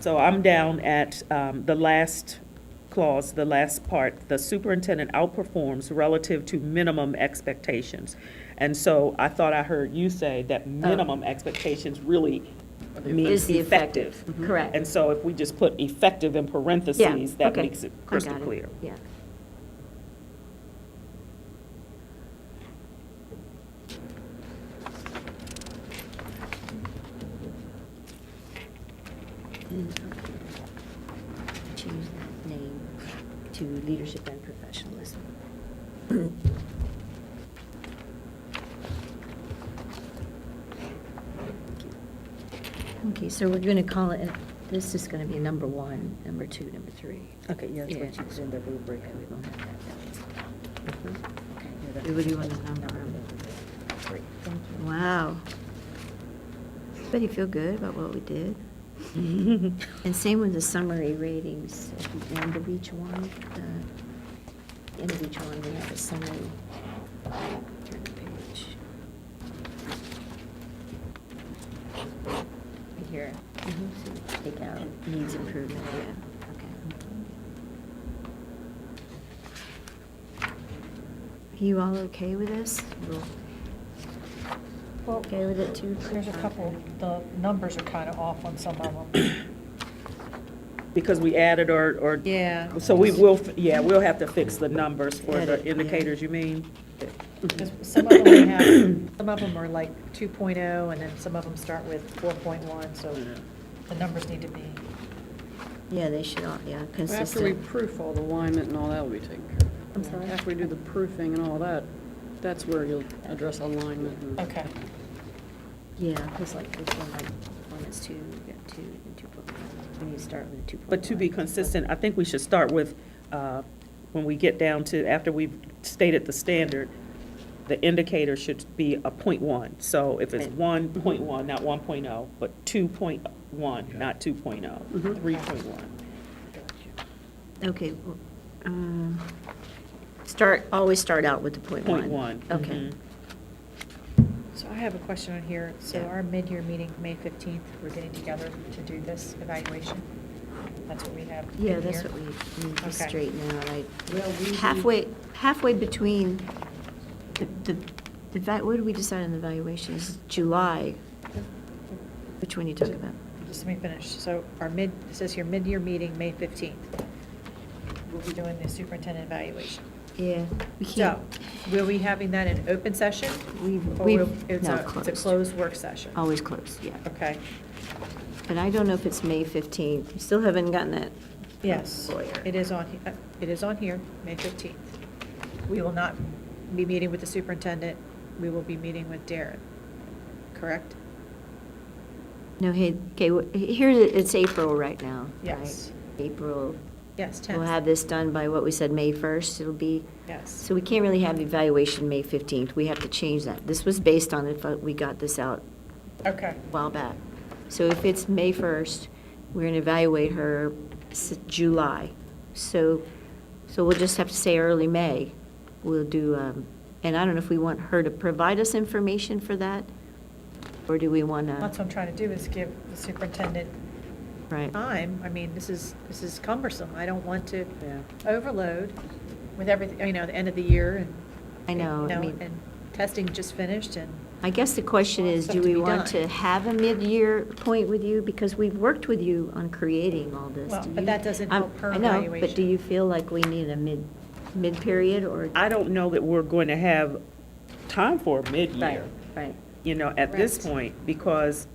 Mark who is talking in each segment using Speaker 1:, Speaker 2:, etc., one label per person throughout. Speaker 1: So I'm down at um, the last clause, the last part, the superintendent outperforms relative to minimum expectations. And so I thought I heard you say that minimum expectations really
Speaker 2: Oh. Is
Speaker 1: means
Speaker 2: the
Speaker 1: effective. Mm-hmm.
Speaker 2: Correct.
Speaker 1: And so if we just put effective in parentheses,
Speaker 2: Yeah,
Speaker 1: that
Speaker 2: okay.
Speaker 1: makes it
Speaker 2: I
Speaker 1: crystal
Speaker 2: got it.
Speaker 1: clear.
Speaker 2: Yeah.
Speaker 1: Mm-hmm.
Speaker 2: Change that name to leadership and professionalism. Okay, so we're going to call it, this is going to be number one, number two, number three.
Speaker 3: Okay, yeah, that's what
Speaker 2: Yeah.
Speaker 3: you was in the rubric.
Speaker 2: Okay, we won't have that, that one.
Speaker 3: Yeah,
Speaker 2: Okay,
Speaker 3: that-
Speaker 2: what do you want to number them?
Speaker 3: Great, thank you.
Speaker 2: Wow. Everybody feel good about what we did? And same with the summary ratings at the end of each one. uh, End of each one, we have a summary. Turn the page. Right here. So Take out needs improvement, yeah, okay. Are you all okay with this?
Speaker 4: Well,
Speaker 2: Okay with it too?
Speaker 4: There's a couple, the numbers are kind of off on some of them.
Speaker 1: Because we added or, or.
Speaker 4: Yeah.
Speaker 1: So we will, f- yeah, we'll have to fix the numbers for
Speaker 2: Edit,
Speaker 1: the
Speaker 2: yeah.
Speaker 1: indicators, you mean?
Speaker 4: 'Cause Some of them have, some of them are like 2.0, and then some of them start with 4.1, so the numbers need to be.
Speaker 2: Yeah, they should all, yeah,
Speaker 5: Well, After we
Speaker 2: consistent.
Speaker 5: proof all the alignment and all that will be taken care of.
Speaker 2: I'm sorry?
Speaker 5: After we do the proofing and all that, that's where you'll address alignment and.
Speaker 4: Okay.
Speaker 2: Yeah, because like this one, like, one is two, we got two, and two point one. We need to start with two point one.
Speaker 1: But to be consistent, I think we should start with, uh, when we get down to, after we've stated the standard, the indicator should be a point one. So if it's
Speaker 2: Right.
Speaker 1: one point one, not one but two point one, not two
Speaker 2: Mm-hmm.
Speaker 5: Mhm.
Speaker 1: three point one.
Speaker 2: Okay, w- um, start, always start out with the point one.
Speaker 1: Point one.
Speaker 2: Okay.
Speaker 1: mhm.
Speaker 4: So I have a question on here. So
Speaker 2: Yeah.
Speaker 4: our mid-year meeting, May 15th, we're getting together to do this evaluation? That's what we have in
Speaker 2: Yeah, that's
Speaker 4: here?
Speaker 2: what we need
Speaker 4: Okay.
Speaker 2: to straighten out, like,
Speaker 3: Well, we-
Speaker 2: halfway, halfway between the, the, the va- what did we decide on the valuations? July, which one you talk about?
Speaker 4: Just let me finish. So our mid, it says here, mid-year meeting, May 15th. We'll be doing the superintendent evaluation.
Speaker 2: Yeah, we
Speaker 4: So,
Speaker 2: can't,
Speaker 4: will we having that in open session?
Speaker 2: we,
Speaker 4: Or
Speaker 2: we,
Speaker 4: will- it's
Speaker 2: no,
Speaker 4: a, it's
Speaker 2: closed.
Speaker 4: a closed work session?
Speaker 2: Always closed, yeah.
Speaker 4: Okay,
Speaker 2: But I don't know if it's May 15th. We Still haven't gotten that.
Speaker 4: yes,
Speaker 2: Lawyer.
Speaker 4: it is on, he- uh, it is on here, May 15th. We will not be meeting with the superintendent, we will be meeting with Darren, correct?
Speaker 2: No, hey, okay, wh- here, it- it's April right now, right?
Speaker 4: Yes.
Speaker 2: April,
Speaker 4: Yes, 10th.
Speaker 2: we'll have this done by what we said, May 1st, it'll be,
Speaker 4: Yes,
Speaker 2: so we can't really have evaluation May 15th. We have to change that. This was based on if uh, we got this out
Speaker 4: okay,
Speaker 2: a while back. So if it's May 1st, we're going to evaluate her s- July. So, so we'll just have to say early May. We'll do, um, and I don't know if we want her to provide us information for that, or do we want to?
Speaker 4: that's what I'm trying to do, is give the superintendent
Speaker 2: Right.
Speaker 4: time. I mean, this is, this is cumbersome, I don't want to
Speaker 1: Yeah.
Speaker 4: overload with everything, you know, the end of the year and.
Speaker 2: I know,
Speaker 4: you
Speaker 2: I mean-
Speaker 4: And testing just finished and.
Speaker 2: I guess the question is, do
Speaker 4: Stuff to
Speaker 2: we
Speaker 4: be
Speaker 2: want
Speaker 4: done.
Speaker 2: to have a mid-year point with you? Because we've worked with you on creating all this.
Speaker 4: Well,
Speaker 2: Do
Speaker 4: but
Speaker 2: you-
Speaker 4: that doesn't
Speaker 2: I'm-
Speaker 4: help her
Speaker 2: I know, but do
Speaker 4: evaluation.
Speaker 2: you feel like we need a mid, mid-period or?
Speaker 1: I don't know that we're going to have time for a mid-year.
Speaker 2: Right,
Speaker 1: you know, at this
Speaker 4: Correct.
Speaker 1: point, because,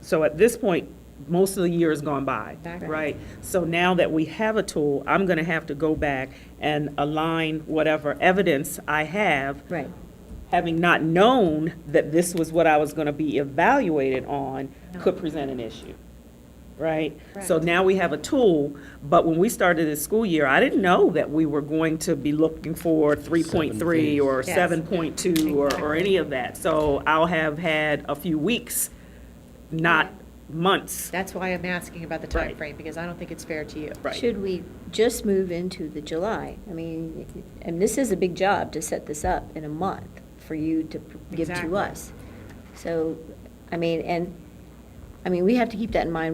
Speaker 1: so at this point, most of the year has gone by,
Speaker 4: Back.
Speaker 1: right? So now that we have a tool, I'm gonna have to go back and align whatever evidence I have,
Speaker 2: right.
Speaker 1: having not known that this was what I was gonna be evaluated on, could present an issue, right? So
Speaker 4: Correct.
Speaker 1: now we have a tool, but when we started this school year, I didn't know that we were going to be looking for three point three
Speaker 6: Seven
Speaker 1: or
Speaker 4: Yes.
Speaker 1: seven point two or, or any of that. So I'll have had a few weeks, not months.
Speaker 4: That's why I'm asking about the
Speaker 1: Right.
Speaker 4: timeframe, because I don't think it's fair to you.
Speaker 1: Right.
Speaker 2: Should we just move into the July? I mean, and this is a big job to set this up in a month for you to p- give
Speaker 4: Exactly.
Speaker 2: to us. So, I mean, and, I mean, we have to keep that in mind